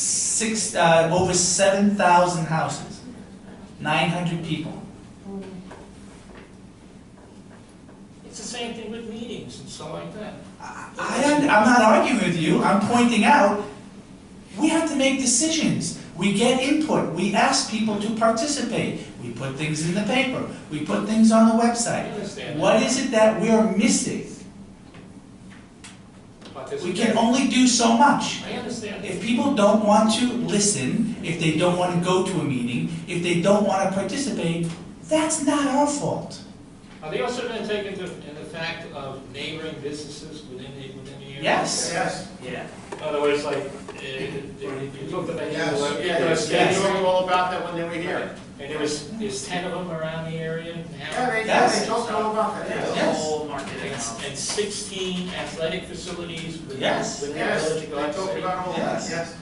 six, uh, over seven thousand houses, nine hundred people. It's the same thing with meetings and stuff like that. I, I- I'm not arguing with you, I'm pointing out, we have to make decisions. We get input, we ask people to participate, we put things in the paper, we put things on the I website. understand that. What is it that we're missing? But there's a We can difference. only do so much. I understand. If people don't want to listen, if they don't want to go to a meeting, if they don't want to participate, that's not our fault. Are they also gonna take into, in the fact of neighboring businesses within the, within the area? Yes. Yes, Yeah. In other words, like, uh, you looked at the. yes, you know, yes, it's- yeah, you knew all about that when they were here. And there was, there's ten of them around the area now. Yeah, they, yeah, Yes. they told me all about that, yes. There's a Yes. whole market And s- economy. and sixteen athletic facilities within, Yes. within the Yes, village they of Garden talked City. about all that, Yes. yes.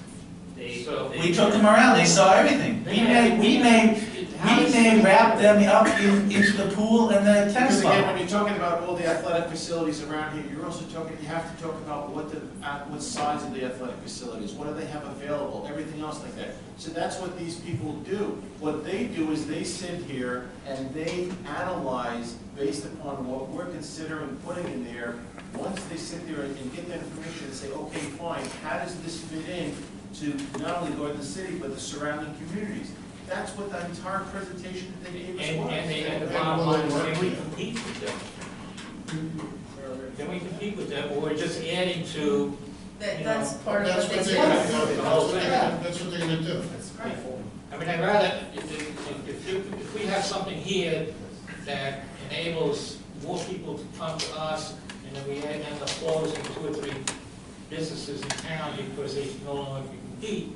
They- So- they- We took them around, they saw everything. We may, we may How We does- may wrap them up in, into the pool and the tennis Because again, when ball. you're talking about all the athletic facilities around here, you're also talking, you have to talk about what the, uh, what size of the athletic facilities, what do they have available, everything else like that. So that's what these people do. What they do is they sit here and they analyze based upon what we're considering putting in there. Once they sit there and and get that information and say, okay, fine, how does this fit in to not only Garden City, but the surrounding communities? That's what the entire presentation that they And, gave us was. and the, and the And bottom what line is, we're can we doing. compete with them? Can we compete with them, or we're just adding to, That, You that's part of That's what what they do. they're gonna Yes. do, The whole thing. that's what they're gonna do. That's great. I mean, I'd rather, if, if, if, you- if we have something here that enables more people to come to us, and then we end up closing two or three businesses in town because they no longer can compete,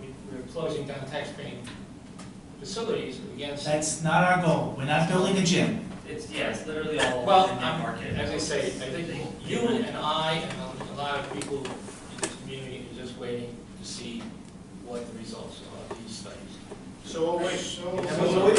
we, we're closing down taxpaying facilities against, That's not our goal. We're not building a gym. It's, yeah, it's literally all Well, in that I'm- market. as I say, I think you and I and a lot of people in this community are just waiting to see what the results are of these studies. So, wait, So- And we'll wait.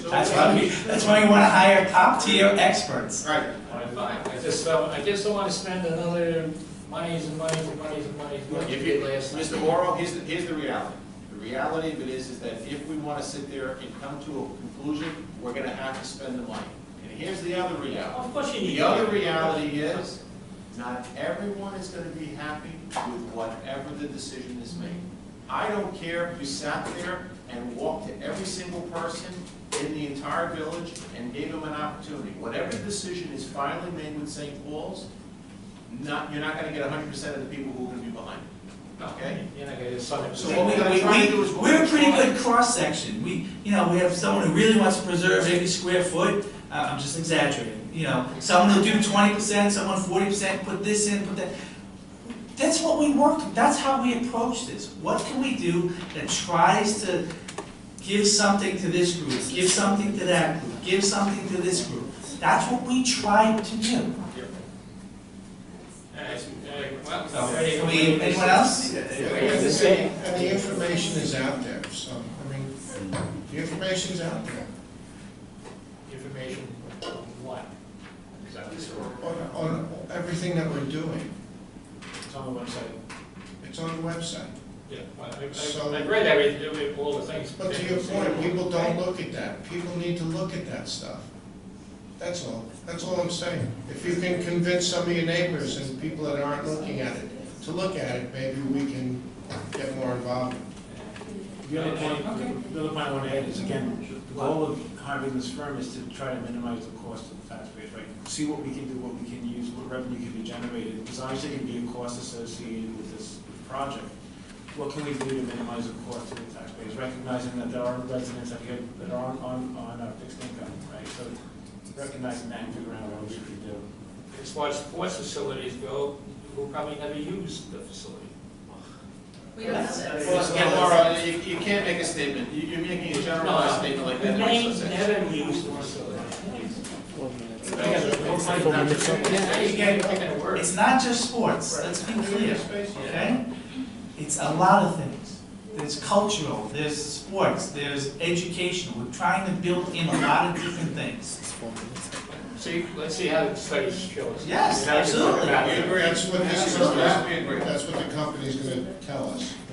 so. That's why we, that's why we want to hire top tier experts. Right, Alright, fine. I just don't, I just don't wanna spend another monies and monies and monies and monies. Look, if you, Mr. Morrow, here's, the- here's the reality. The reality of it is, is that if we wanna sit there and come to a conclusion, we're gonna have to spend the money. And here's the other reality. Of course you need. The other reality is, not everyone is gonna be happy with whatever the decision is made. I don't care if you sat there and walked to every single person in the entire village and gave them an opportunity. Whatever decision is finally made with St. Paul's, not, you're not gonna get hundred percent of the people who are gonna be behind it. Okay, you're not gonna get something. So We, what we're gonna try to do is what are we're a pretty trying- good cross section. We, you know, we have someone who really wants to preserve every square foot. Uh, I'm just exaggerating, you know. Someone who'll do twenty percent, someone forty percent, put this in, put that. That's what we worked, that's how we approach this. What can we do that tries to give something to this group, give something to that group, give something to this group? That's what we tried to do. uh, So, we- anyone else? And the information is out there, so, I mean, the information's out there. Information, what? Is that this or? On, on everything that we're doing, It's on the website. it's on the website. Yeah, well, So- I, I, I read every, all the things. But to your point, people don't look at that, people need to look at that stuff. That's all, that's all I'm saying. If you can convince some of your neighbors and people that aren't looking at it to look at it, maybe we can get more involved. The other point, the other point I want to add is, again, the goal of hiring this firm is to try to minimize the cost of the taxpayers, right? See what we can do, what we can use, what revenue can be generated, because obviously there can be a cost associated with this project. What can we do to minimize the cost to the taxpayers, recognizing that there are residents that get, that are on, on, on a fixed income, right? So recognizing that and figuring out what we should do. As far as sports facilities go, who probably never used the facility. We don't know that. Well, Mr. Morrow, you, you can't make a statement, you, you're making a generalized statement like that. They never used the facility. It's not just sports, let's be clear, okay? It's a lot of things. There's cultural, there's sports, there's educational. We're trying to build in a lot of different things. See, let's see how the studies show us. Yes, absolutely. That's what this is Absolutely, about. we agree. That's what the company's gonna tell us.